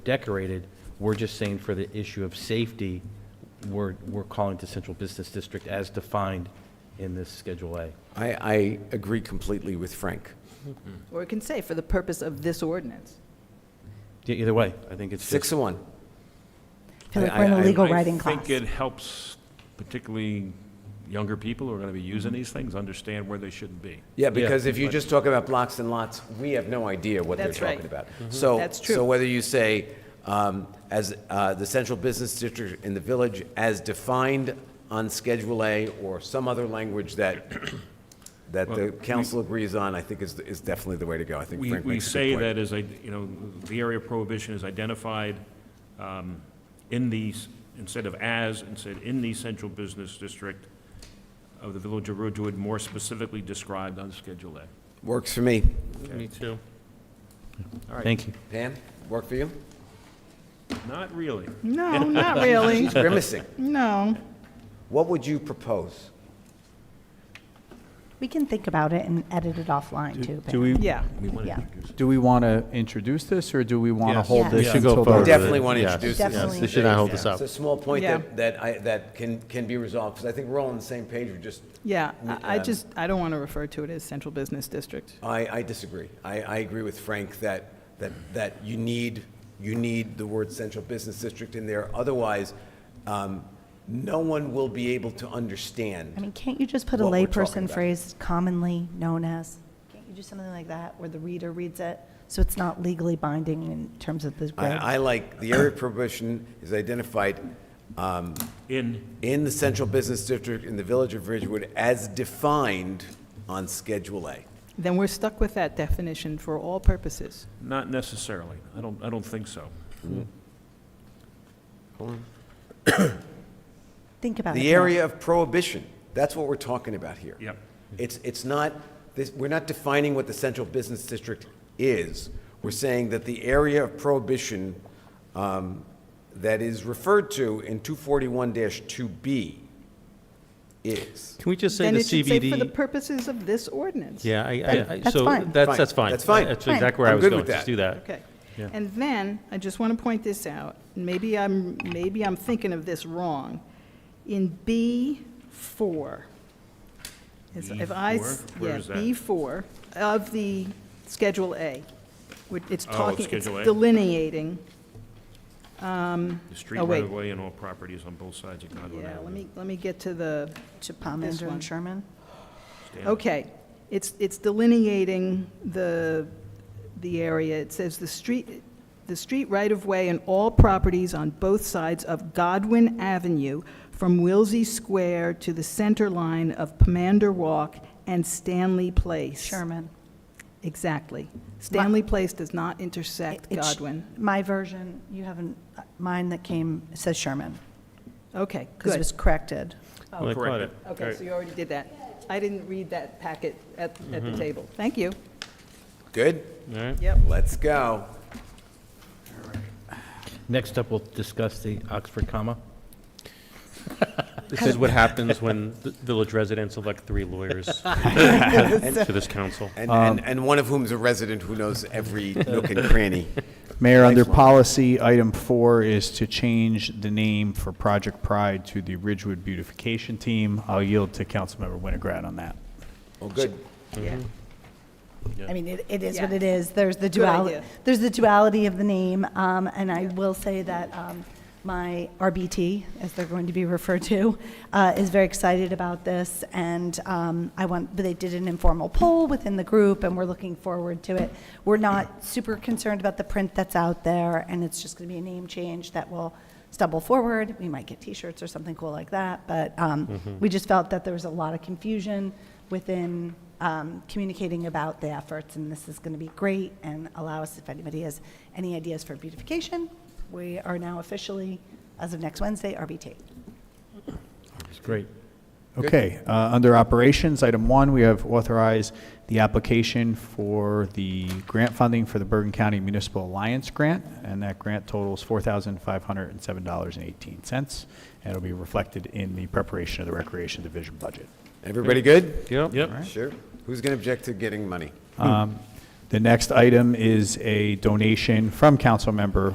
decorated. We're just saying for the issue of safety, we're, we're calling to Central Business District as defined in this Schedule A. I, I agree completely with Frank. Or it can say, for the purpose of this ordinance. E- Either way, I think it's Six just, of one. I feel like I- we're in I- a legal I writing class. think it helps particularly younger people who are going to be using these things understand where they shouldn't be. Yeah, because if you just talk about blocks and lots, we have no idea what they're That's right. Mm-hmm. talking about. So, That's So true. whether you say, um, as, uh, the central business district in the village as defined on Schedule A or some other language that, that the council agrees on, I think is, is definitely the way to go. I think We, Frank we makes a say good point. that as, I- you know, the area of prohibition is identified um, in these, instead of as, instead in the central business district of the village of Ridgewood, more specifically described on Schedule A. Works for me. Me too. thank you. Pam, work for you? Not really. No, not really, She's grimacing. no. What would you propose? We can think about it and edit it offline, too. Do but- we, Yeah, Yeah, do we want to introduce this, or do we want to Yes. hold Yes. this Yeah. Should go until forward the with Definitely it, want to yes. introduce this. Definitely. They should not hold this It's up. a small point Yeah. that, that I, that can, can be resolved, because I think we're all on the same page, we're just, yeah, I I Um, just, I don't want to refer to it as central business district. I, I disagree. I, I agree with Frank that, that, that you need, you need the word central business district in there, otherwise, um, no one will be able to I understand. mean, can't you just put a What we're talking layperson about. phrase commonly known as? Can't you do something like that, where the reader reads it, so it's not legally binding in terms of the grade? I, I like, the area of prohibition is identified um, In, in the central business district in the village of Ridgewood as defined on Schedule A. Then we're stuck with that definition for all purposes. not necessarily. I don't, I don't think so. Think about it. The Pam. area of prohibition, that's what we're talking about here. Yep. It's, it's not, this, we're not defining what the central business district is. We're saying that the area of prohibition um, that is referred to in 241-2B is. Can we just say Then the it should say for the CBD? purposes of this ordinance. Yeah, I- I, I, That's so fine. that's, that's fine. That's fine. That's Fine. exactly where I'm I was good going, with just that. do that. Okay. Yeah. And then, I just want to point this out, maybe I'm, maybe I'm thinking of this wrong. In B4, is- if I, s- B4? Where yeah, is that? B4 of the Schedule A, which it's Oh, talking, it's Schedule A. delineating. The street Oh, wait. right of way and all properties on both sides of Godwin Yeah, let Avenue. me, let me get to the, To this Palmander one. and Sherman? Stand- Okay, it's, it's delineating the, the area. It says the street, the street right-of-way and all properties on both sides of Godwin Avenue from Wilsey Square to the center line of Pomander Walk and Stanley Place. Sherman. Exactly. Stanley Place does not intersect It- it's- Godwin. My version, you haven't, uh, mine that came says Sherman, Okay, because it good. was corrected. Oh, Like, correct what? it. Okay, so you already did that. I didn't read that packet at, at the table. Thank you. Good? All right. Yep. Let's go. Next up, we'll discuss the Oxford comma. This is what happens when the village residents elect three lawyers to this council. And, and, and one of whom is a resident who knows every nook and cranny. Mayor, under Excellent. policy, item four is to change the name for Project Pride to the Ridgewood Beautification Team. I'll yield to Councilmember Winograd on that. Oh, good. Yeah. I mean, it, it is what Yeah. it is. There's the Good duality, idea. there's the duality of the name, um, and I will say that, um, my RBT, as they're going to be referred to, uh, is very excited about this, and, um, I want, but they did an informal poll within the group, and we're looking forward to it. We're not super concerned about the print that's out there, and it's just gonna be a name change that will stumble forward. We might get T-shirts or something cool like that, but um, we just felt that there was a lot of confusion within um, communicating about the efforts, and this is going to be great and allow us, if anybody has any ideas for beautification, we are now officially, as of next Wednesday, RBT. It's great. Okay, uh, under operations, item one, we have authorized the application for the grant funding for the Bergen County Municipal Alliance Grant, and that grant totals $4,507.18, and it'll be reflected in the preparation of the Recreation Division budget. Everybody good? Yep. Yep. Sure. Who's going to object to getting money? Um, The next item is a donation from Councilmember